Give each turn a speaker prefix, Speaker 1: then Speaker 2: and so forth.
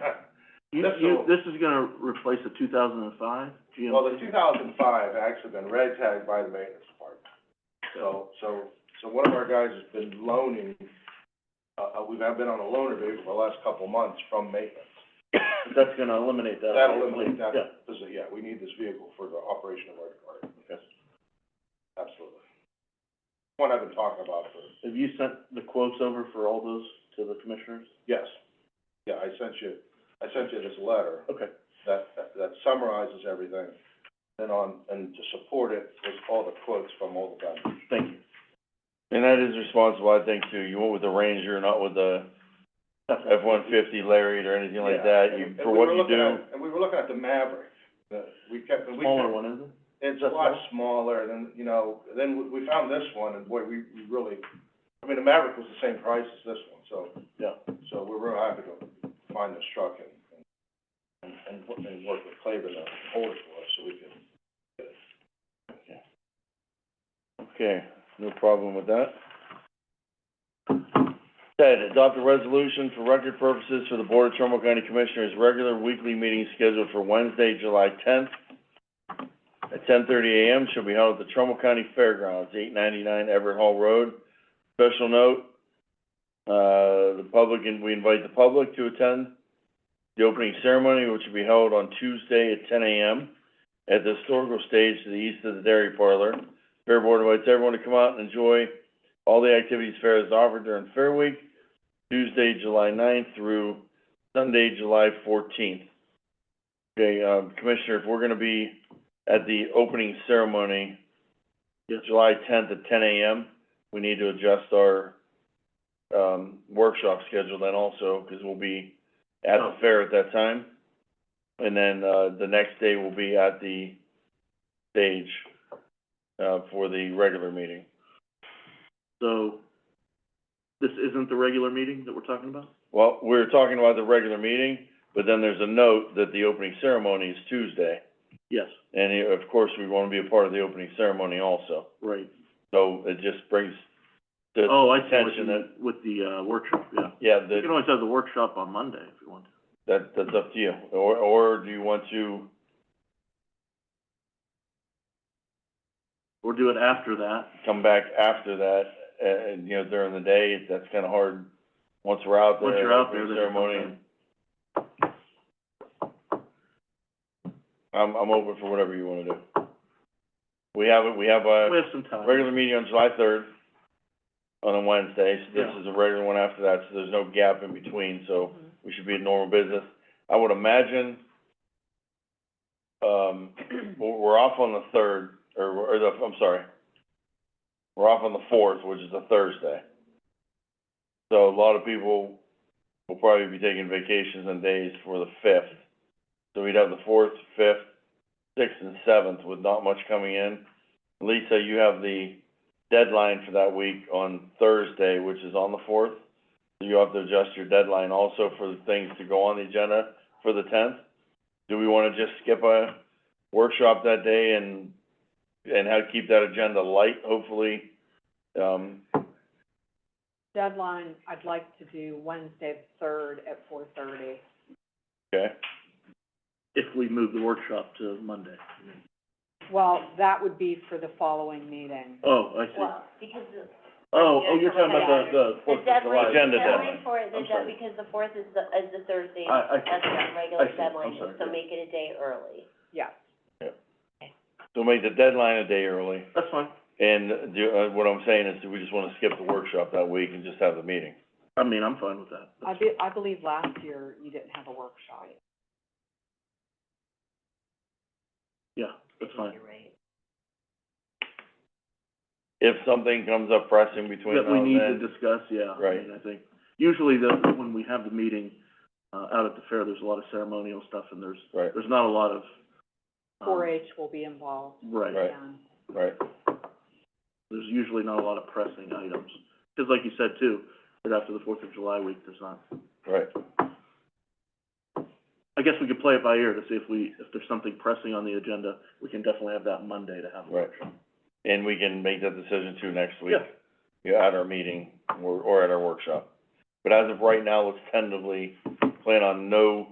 Speaker 1: You,
Speaker 2: That's
Speaker 1: you,
Speaker 2: all.
Speaker 1: this is gonna replace a two thousand and five GMC?
Speaker 2: Well, the two thousand five actually been red tagged by the maintenance department. So, so, so one of our guys has been loaning, uh, uh, we've been on a loaner duty for the last couple of months from maintenance.
Speaker 1: But That's gonna eliminate that.
Speaker 2: That'll eliminate that,
Speaker 1: Yeah,
Speaker 2: this is, yeah, we need this vehicle for the operation of our department.
Speaker 1: Yes.
Speaker 2: Absolutely. One I've been talking about for,
Speaker 1: have you sent the quotes over for all those to the commissioners?
Speaker 2: yes. Yeah, I sent you, I sent you this letter.
Speaker 1: Okay.
Speaker 2: that, that- that summarizes everything. And on, and to support it was all the quotes from all the vendors.
Speaker 1: Thank you.
Speaker 3: And that is responsible, I think, too. You went with the Ranger, not with the F-150 Lariat or anything like that. You,
Speaker 2: And- and
Speaker 3: for
Speaker 2: we
Speaker 3: what
Speaker 2: were
Speaker 3: you
Speaker 2: looking
Speaker 3: do.
Speaker 2: at- And we were looking at the Maverick, the, we kept, and we
Speaker 1: Smaller
Speaker 2: kept,
Speaker 1: one, isn't it?
Speaker 2: it's a
Speaker 1: Just
Speaker 2: lot
Speaker 1: that?
Speaker 2: smaller than, you know, then we, we found this one and boy, we, we really, I mean, the Maverick was the same price as this one, so.
Speaker 1: Yeah.
Speaker 2: So we're real happy to find this truck and, and, and, wo- and work with Claver to hold it for us so we can.
Speaker 3: Okay, no problem with that. Ted, adopt a resolution for record purposes for the Board of Trumbull County Commissioners' regular weekly meeting scheduled for Wednesday, July tenth at ten thirty AM, shall be held at the Trumbull County Fairgrounds, eight ninety-nine Everett Hall Road. Special note, uh, the public, and we invite the public to attend the opening ceremony, which will be held on Tuesday at ten AM at the historical stage to the east of the Dairy Parlor. Fair Board invites everyone to come out and enjoy all the activities fair has offered during Fair Week, Tuesday, July 9th through Sunday, July fourteenth. Okay, um, Commissioner, if we're gonna be at the opening ceremony,
Speaker 1: Yes.
Speaker 3: July tenth at ten AM, we need to adjust our, um, workshop schedule then also, 'cause we'll be at the
Speaker 1: Oh.
Speaker 3: fair at that time. And then, uh, the next day will be at the stage, uh, for the regular meeting.
Speaker 1: So, this isn't the regular meeting that we're talking about?
Speaker 3: Well, we were talking about the regular meeting, but then there's a note that the opening ceremony is Tuesday.
Speaker 1: Yes,
Speaker 3: And eh, of course, we want to be a part of the opening ceremony also.
Speaker 1: right.
Speaker 3: So it just brings the,
Speaker 1: Oh, I see, with
Speaker 3: attention
Speaker 1: the, with the, uh, workshop, yeah.
Speaker 3: yeah,
Speaker 1: You can
Speaker 3: the,
Speaker 1: always have the workshop on Monday if you want to.
Speaker 3: that, that's up to you. Or, or do you want to,
Speaker 1: Or do it after that.
Speaker 3: come back after that, uh, and, you know, during the day, that's kind of hard. Once we're out there.
Speaker 1: Once you're out there,
Speaker 3: opening
Speaker 1: then it's
Speaker 3: Ceremony, I'm, I'm open for whatever you want to do. We have, a- we have
Speaker 1: okay.
Speaker 3: a
Speaker 1: We have some time.
Speaker 3: regular meeting on July third, on a Wednesday, so this
Speaker 1: Yeah. Mm-hmm.
Speaker 3: is a regular one after that, so there's no gap in between, so we should be in normal business. I would imagine, um, we're, we're off on the third, or, or the, I'm sorry, we're off on the fourth, which is a Thursday. So a lot of people will probably be taking vacations and days for the fifth. So we'd have the fourth, fifth, sixth, and seventh with not much coming in. Lisa, you have the deadline for that week on Thursday, which is on the fourth. So you have to adjust your deadline also for the things to go on the agenda for the tenth. Do we wanna just skip a workshop that day and, and how to keep that agenda light, hopefully? Um,
Speaker 4: deadline, I'd like to do Wednesday, third at four thirty.
Speaker 3: okay,
Speaker 1: If we move the workshop to Monday.
Speaker 4: Well, that would be for the following meeting.
Speaker 1: Oh, I see.
Speaker 5: Well, because the.
Speaker 1: Oh, oh, you're talking about the, the Fourth of July.
Speaker 5: deadline,
Speaker 3: Agenda
Speaker 5: the deadline
Speaker 3: deadline.
Speaker 5: for it, the
Speaker 1: I'm
Speaker 5: de-
Speaker 1: sorry.
Speaker 5: because the fourth is the, is the Thursday,
Speaker 1: I- I see.
Speaker 5: that's the regular
Speaker 1: I see.
Speaker 5: deadline,
Speaker 1: I'm sorry,
Speaker 5: so
Speaker 1: yeah.
Speaker 5: make it a day early.
Speaker 4: Yeah,
Speaker 3: so make the deadline a day early.
Speaker 1: That's fine.
Speaker 3: And do, uh, what I'm saying is, do we just wanna skip the workshop that week and just have the meeting?
Speaker 1: I mean, I'm fine with that.
Speaker 4: I
Speaker 1: That's-
Speaker 4: be, I believe last year you didn't have a workshop.
Speaker 1: Yeah, that's fine.
Speaker 5: You're right.
Speaker 3: If something comes up pressing between now
Speaker 1: That
Speaker 3: and
Speaker 1: we
Speaker 3: then.
Speaker 1: need to discuss, yeah. I
Speaker 3: Right.
Speaker 1: mean, I think, usually the, when we have the meeting, uh, out at the fair, there's a lot of ceremonial stuff and there's,
Speaker 3: Right.
Speaker 1: there's not a lot of. um,
Speaker 4: Four H will be involved,
Speaker 1: Right.
Speaker 3: Right.
Speaker 4: and
Speaker 3: Right,
Speaker 1: There's usually not a lot of pressing items. Cause like you said too, right after the Fourth of July week, there's not,
Speaker 3: right.
Speaker 1: I guess we could play it by ear to see if we, if there's something pressing on the agenda, we can definitely have that Monday to have a
Speaker 3: Right.
Speaker 1: workshop.
Speaker 3: And we can make that decision too next week.
Speaker 1: Yeah.
Speaker 3: Yeah, at our meeting or, or at our workshop. But as of right now, let's tentatively plan on no